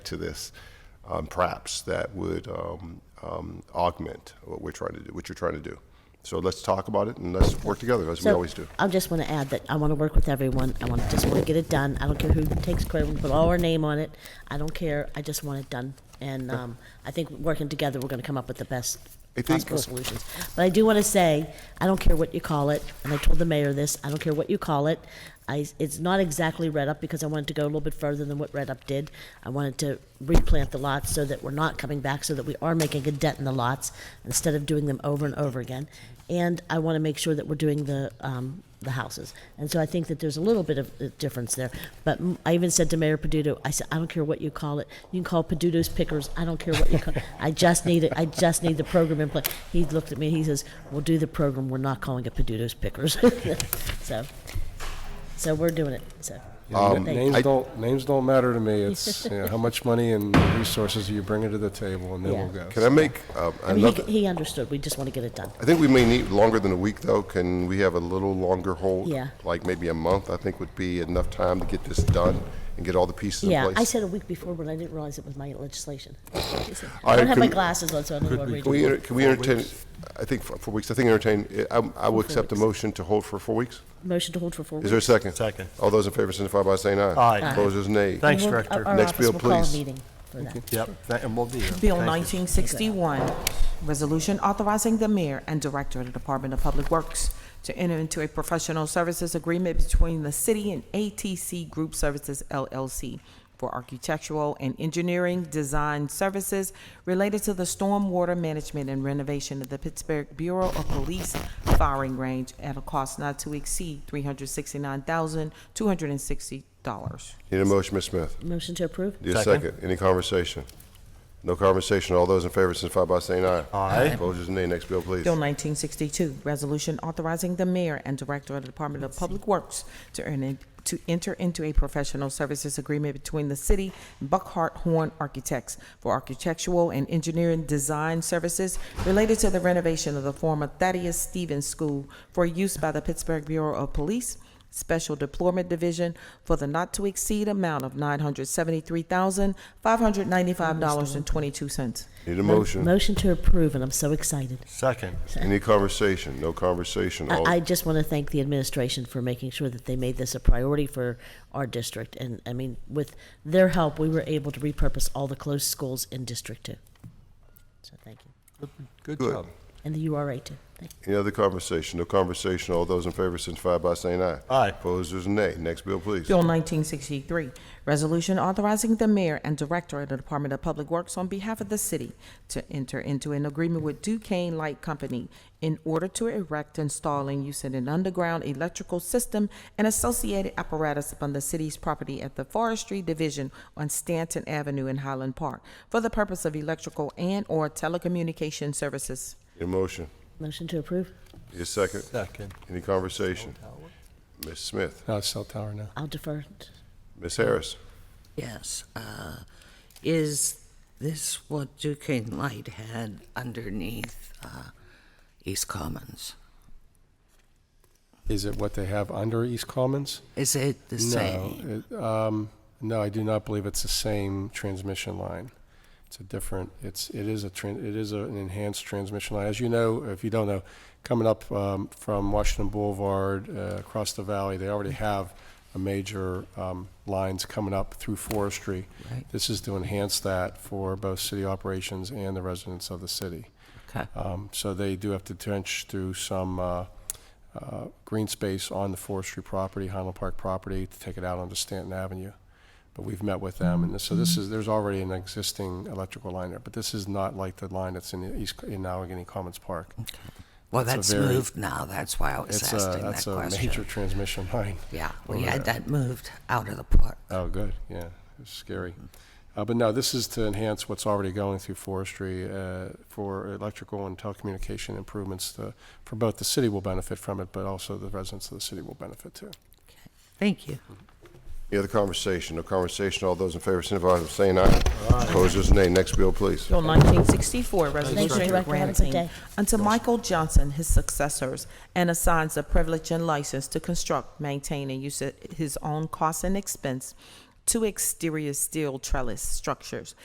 to this, um, perhaps, that would um, um, augment what we're trying to do, what you're trying to do. So let's talk about it and let's work together, as we So, always do. I just want to add that I want to work with everyone. I want to just want to get it done. I don't care who takes credit. We put all our name on it. I don't care. I just want it done. And um, I think working together, we're going to come up with the best I think- possible solutions. But I do want to say, I don't care what you call it. And I told the mayor this. I don't care what you call it. I, it's not exactly red up because I wanted to go a little bit further than what red up did. I wanted to replant the lots so that we're not coming back, so that we are making a dent in the lots instead of doing them over and over again. And I want to make sure that we're doing the um, the houses. And so I think that there's a little bit of a difference there. But m- I even said to Mayor Peduto, I said, I don't care what you call it. You can call Peduto's Pickers. I don't care what you call. I just need it. I just need the program in place. He looked at me. and He says, "We'll do the program. We're not calling it Peduto's Pickers." so, so we're doing it. So. Um, Thank names you. don't names don't matter to me. It's you know, how much money and resources you bring to the table, and then Yeah. we'll go. Can I make um, I mean, another? he, he understood. We just want to get it done. I think we may need longer than a week, though. Can we have a little longer hold? Yeah. Like maybe a month, I think would be enough time to get this done and get all the pieces in Yeah, place. I said a week before, but I didn't realize it was my legislation. I right, don't have my can- glasses on, so I don't know what I'm reading. Can we, enter- can we entertain, I think for four weeks, I think entertain, I, I will accept the motion to hold for four weeks. Motion to hold for four weeks. Is there a second? Second. All those in favor signify by saying aye. Aye. Aye. Opposers, nay. Thank- Thanks, We'll- Director. Our Next office bill, will call a please. meeting for that. Yep, tha- and we'll be here. Bill Thank you. 1961, resolution authorizing the mayor and director of the Department of Public Works to enter into a professional services agreement between the city and ATC Group Services LLC for architectural and engineering design services related to the stormwater management and renovation of the Pittsburgh Bureau of Police firing range at a cost not to exceed $369,260. Need a motion, Ms. Smith? Motion to approve? Need a Second. second? Any conversation? No conversation. All those in favor signify by saying aye. Aye. Opposers, nay. Next bill, please. Bill 1962, resolution authorizing the mayor and director of the Department of Public Works to earn a- to enter into a professional services agreement between the city and Buckhart Horn Architects for architectural and engineering design services related to the renovation of the former Thaddeus Stevens School for use by the Pittsburgh Bureau of Police Special Deployment Division for the not-to-exceed amount of $973,595.22. Need a motion? Motion to approve, and I'm so excited. Second. Any conversation? No conversation. All- I, I just want to thank the administration for making sure that they made this a priority for our district. And, I mean, with their help, we were able to repurpose all the closed schools in District Two. So thank you. Good Good. job. And the URA too. Thank you. Any other conversation? No conversation. All those in favor signify by saying aye. Aye. Opposers, nay. Next bill, please. Bill 1963, resolution authorizing the mayor and director of the Department of Public Works on behalf of the city to enter into an agreement with Duquesne Light Company in order to erect, install, and use an underground electrical system and associated apparatus upon the city's property at the Forestry Division on Stanton Avenue in Highland Park for the purpose of electrical and/or telecommunication services. Need a motion? Motion to approve? Need a second? Second. Any conversation? Ms. Smith? No, it's cell tower now. I'll defer. Ms. Harris? Yes. uh, Is this what Duquesne Light had underneath uh, East Commons? Is it what they have under East Commons? Is it the same? No, it, um, no, I do not believe it's the same transmission line. It's a different. It's it is a tran- it is a, an enhanced transmission line. As you know, if you don't know, coming up um, from Washington Boulevard uh, across the valley, they already have a major um, lines coming up through Forestry. Right. This is to enhance that for both city operations and the residents of the city. Okay. Um, So they do have to trench through some uh, uh, green space on the forestry property, Highland Park property, to take it out onto Stanton Avenue. But we've met with them, and so Mm-hmm. this is, there's already an existing electrical line there, but this is not like the line that's in the East, in Allegheny Commons Park. Well, a that's very- moved now. That's why I was It's a, asking that that's a major question. transmission line. Yeah, we over had there. that moved out of the park. Oh, good, yeah, it's scary. Uh, But no, this is to enhance what's already going through forestry uh, for electrical and telecommunication improvements to- for both the city will benefit from it, but also the residents of the city will benefit too. Thank you. Any other conversation? No conversation. All those in favor signify by saying aye. Opposers, nay. Next bill, please. Bill 1964, Thank you, resolution Director. Have a good granting day. unto Michael Johnson his successors and assigns the privilege and license to construct, maintain, and use at his own cost and expense two exterior steel trellis structures